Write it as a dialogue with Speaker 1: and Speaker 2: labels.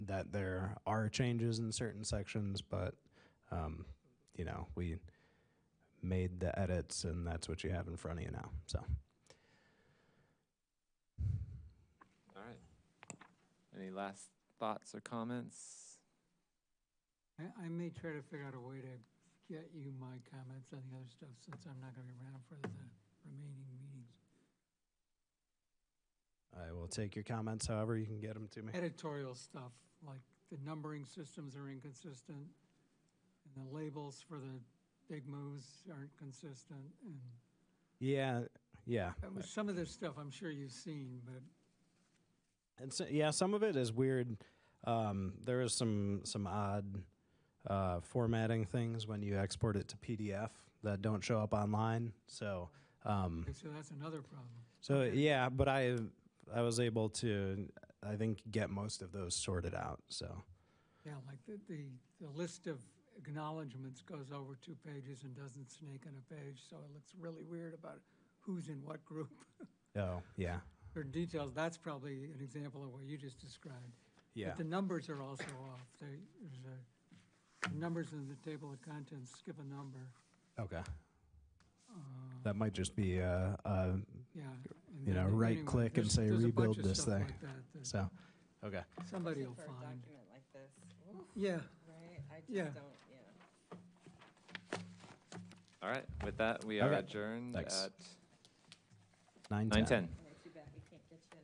Speaker 1: that there are changes in certain sections, but, um, you know, we made the edits and that's what you have in front of you now, so.
Speaker 2: All right. Any last thoughts or comments?
Speaker 3: I, I may try to figure out a way to get you my comments on the other stuff since I'm not gonna be around for the remaining meetings.
Speaker 1: I will take your comments however you can get them to me.
Speaker 3: Editorial stuff, like the numbering systems are inconsistent and the labels for the big moves aren't consistent and
Speaker 1: Yeah, yeah.
Speaker 3: that was- some of this stuff I'm sure you've seen, but
Speaker 1: And so, yeah, some of it is weird. Um, there is some some odd uh, formatting things when you export it to PDF that don't show up online. So um,
Speaker 3: okay, so that's another problem.
Speaker 1: so yeah, but I I was able to I think get most of those sorted out. So
Speaker 3: Yeah, like the, the, the list of acknowledgements goes over two pages and doesn't snake on a page, so it looks really weird about who's in what group.
Speaker 1: oh yeah
Speaker 3: Or details, that's probably an example of what you just described.
Speaker 1: yeah
Speaker 3: But the numbers are also off. They, there's a, the numbers in the table of contents, skip a number.
Speaker 1: okay
Speaker 3: Uh,
Speaker 1: that might just be uh, uh,
Speaker 3: Yeah. and
Speaker 1: You
Speaker 3: then
Speaker 1: know,
Speaker 3: the-
Speaker 1: right
Speaker 3: anyway,
Speaker 1: click and
Speaker 3: there's-
Speaker 1: say
Speaker 3: there's a
Speaker 1: rebuild
Speaker 3: bunch of
Speaker 1: this
Speaker 3: stuff
Speaker 1: thing.
Speaker 3: like that that
Speaker 1: so okay
Speaker 3: Somebody will
Speaker 4: For a
Speaker 3: find.
Speaker 4: document like this,
Speaker 3: Yeah,
Speaker 4: right? I
Speaker 3: Yeah.
Speaker 4: just don't, yeah.
Speaker 2: All right. With that, we are
Speaker 1: Okay.
Speaker 2: adjourned
Speaker 1: Thanks.
Speaker 2: at
Speaker 1: nine ten.
Speaker 2: nine ten.
Speaker 4: Yeah.